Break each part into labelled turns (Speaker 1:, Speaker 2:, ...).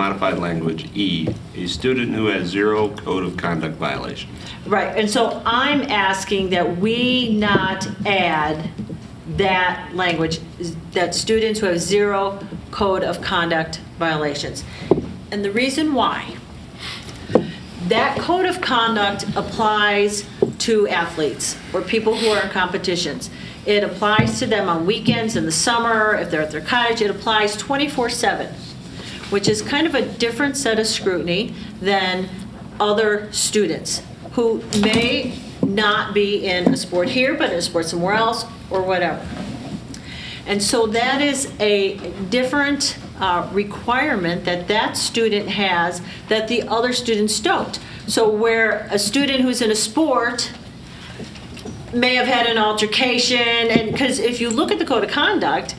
Speaker 1: modified language E, a student who has zero code of conduct violation.
Speaker 2: Right, and so I'm asking that we not add that language, that students who have zero code of conduct violations. And the reason why, that code of conduct applies to athletes or people who are in competitions. It applies to them on weekends, in the summer, if they're at their cottage, it applies 24/7, which is kind of a different set of scrutiny than other students who may not be in a sport here, but in a sport somewhere else, or whatever. And so that is a different uh, requirement that that student has that the other students don't. So where a student who's in a sport may have had an altercation, and, because if you look at the code of conduct,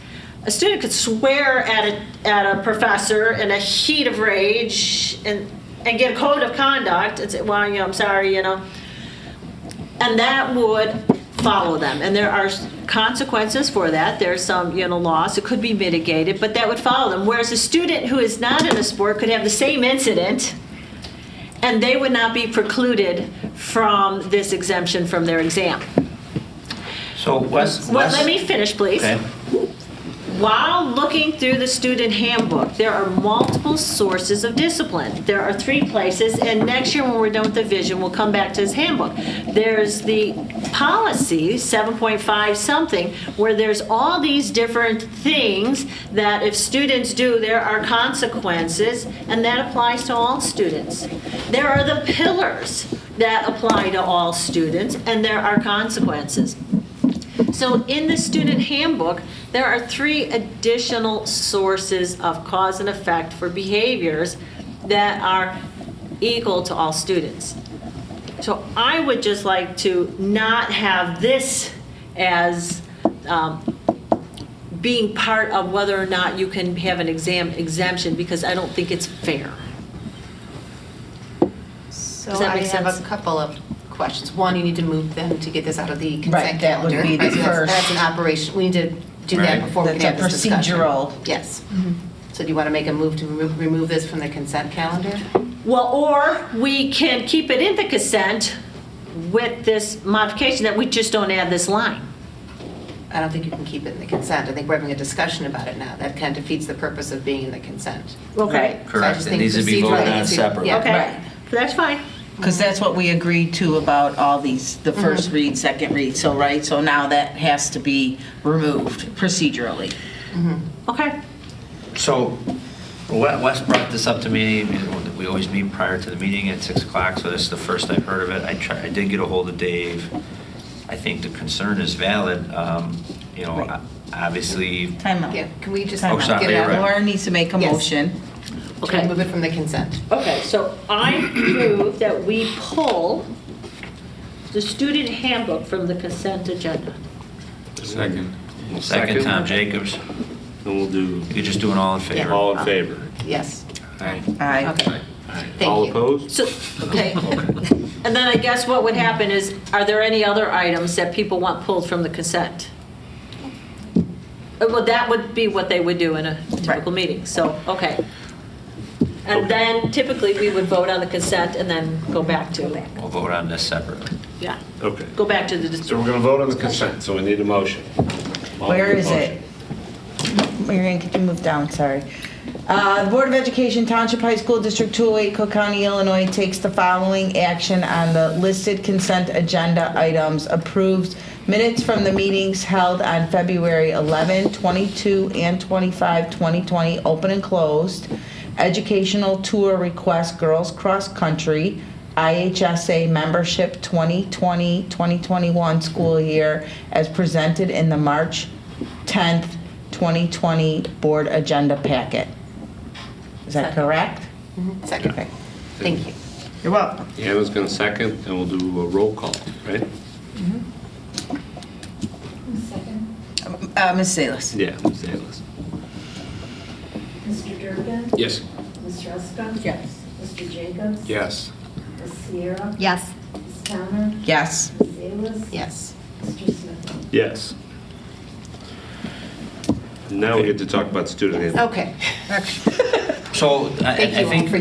Speaker 2: a student could swear at a, at a professor in a heat of rage and, and get a code of conduct and say, well, you know, I'm sorry, you know. And that would follow them, and there are consequences for that, there's some, you know, loss, it could be mitigated, but that would follow them. Whereas a student who is not in a sport could have the same incident, and they would not be precluded from this exemption from their exam.
Speaker 3: So Wes,
Speaker 2: Well,
Speaker 3: Wes.
Speaker 2: let me finish, please.
Speaker 3: Okay.
Speaker 2: While looking through the student handbook, there are multiple sources of discipline. There are three places, and next year when we're done with the vision, we'll come back to this handbook. There's the policy, 7.5 something, where there's all these different things that if students do, there are consequences, and that applies to all students. There are the pillars that apply to all students, and there are consequences. So in the student handbook, there are three additional sources of cause and effect for behaviors that are equal to all students. So I would just like to not have this as um, being part of whether or not you can have an exam exemption, because I don't think it's fair.
Speaker 4: So
Speaker 2: Does that
Speaker 4: I
Speaker 2: make
Speaker 4: have a
Speaker 2: sense?
Speaker 4: couple of questions. One, you need to move them to get this out of the
Speaker 5: Right,
Speaker 4: consent
Speaker 5: that would
Speaker 4: calendar.
Speaker 5: be the
Speaker 4: Right, so that's-
Speaker 5: first.
Speaker 4: That's an operation, we need to do
Speaker 1: Right.
Speaker 4: that before we can have
Speaker 5: That's a
Speaker 4: this discussion.
Speaker 5: procedural. Mm-hmm.
Speaker 4: Yes. So do you want to make a move to remo- remove this from the consent calendar?
Speaker 2: Well, or we can keep it in the consent with this modification that we just don't add this line.
Speaker 4: I don't think you can keep it in the consent. I think we're having a discussion about it now. That kind of defeats the purpose of being in the consent.
Speaker 2: Okay,
Speaker 4: So I
Speaker 3: Correct.
Speaker 4: just
Speaker 3: It
Speaker 4: think
Speaker 3: needs to be
Speaker 4: procedurally
Speaker 3: voted on
Speaker 4: it's-
Speaker 3: separately.
Speaker 4: yeah.
Speaker 2: okay,
Speaker 5: Right.
Speaker 2: that's fine.
Speaker 5: Because that's what we agreed to about all these,
Speaker 4: Mm-hmm.
Speaker 5: the first read, second read, so, right? So now that has to be removed procedurally.
Speaker 2: Okay,
Speaker 3: So We- Wes brought this up to me, we always meet prior to the meeting at 6 o'clock, so this is the first I've heard of it. I tried, I did get a hold of Dave. I think the concern is valid, um, you know,
Speaker 5: Right.
Speaker 3: o- obviously,
Speaker 5: Time out.
Speaker 4: Yeah, can we just
Speaker 5: Time
Speaker 3: Oh,
Speaker 5: out.
Speaker 3: sorry,
Speaker 4: get it
Speaker 3: you're right.
Speaker 4: out?
Speaker 5: Laura needs to make a
Speaker 4: Yes.
Speaker 5: motion.
Speaker 4: Can we
Speaker 2: okay.
Speaker 4: move it from the consent?
Speaker 2: Okay, so I move that we pull the student handbook from the consent agenda.
Speaker 1: Second.
Speaker 3: second Tom Jacobs,
Speaker 1: And we'll do
Speaker 3: you're just doing all in favor. All
Speaker 1: all in favor.
Speaker 4: Yes.
Speaker 3: right.
Speaker 5: Aye.
Speaker 4: Okay, thank you.
Speaker 1: All opposed?
Speaker 2: So, okay. And then I guess what would happen is, are there any other items that people want pulled from the consent? Uh, Well, that would be what they would do in a typical
Speaker 5: Right.
Speaker 2: meeting, so, okay. And then typically, we would vote on the consent and then go back to,
Speaker 3: We'll vote on this separately.
Speaker 2: yeah,
Speaker 1: Okay.
Speaker 2: go back to the. dis-
Speaker 1: So we're going to vote on the consent, so we need a motion.
Speaker 5: Where is it? Marion, could you move down, sorry? Uh, The Board of Education Township High School District 208, Cook County, Illinois takes the following action on the listed consent agenda items. Approves minutes from the meetings held on February 11, 22, and 25, 2020, open and closed. Educational tour request, girls cross country, IHSA membership 2020, 2021 school year as presented in the March 10th, 2020 board agenda packet. Is that
Speaker 4: Second.
Speaker 5: correct?
Speaker 4: Mm-hmm. Second,
Speaker 5: Okay.
Speaker 4: thank you.
Speaker 5: You're welcome.
Speaker 1: Anna's going to second, and we'll do a roll call, right?
Speaker 6: Second,
Speaker 5: Uh, Ms. Salas?
Speaker 1: Yeah, Ms. Salas.
Speaker 6: Mr. Durkin?
Speaker 1: Yes.
Speaker 6: Ms. Ruska?
Speaker 2: Yes.
Speaker 6: Mr. Jacobs?
Speaker 1: Yes.
Speaker 6: Ms. Sierra?
Speaker 4: Yes.
Speaker 6: Ms. Towner?
Speaker 5: Yes.
Speaker 6: Ms. Salas?
Speaker 4: Yes.
Speaker 6: Mr. Smith?
Speaker 1: Yes. Now we get to talk about student handbook.
Speaker 4: Okay.
Speaker 3: So I- I
Speaker 4: Thank you
Speaker 3: I
Speaker 4: all
Speaker 3: think
Speaker 4: for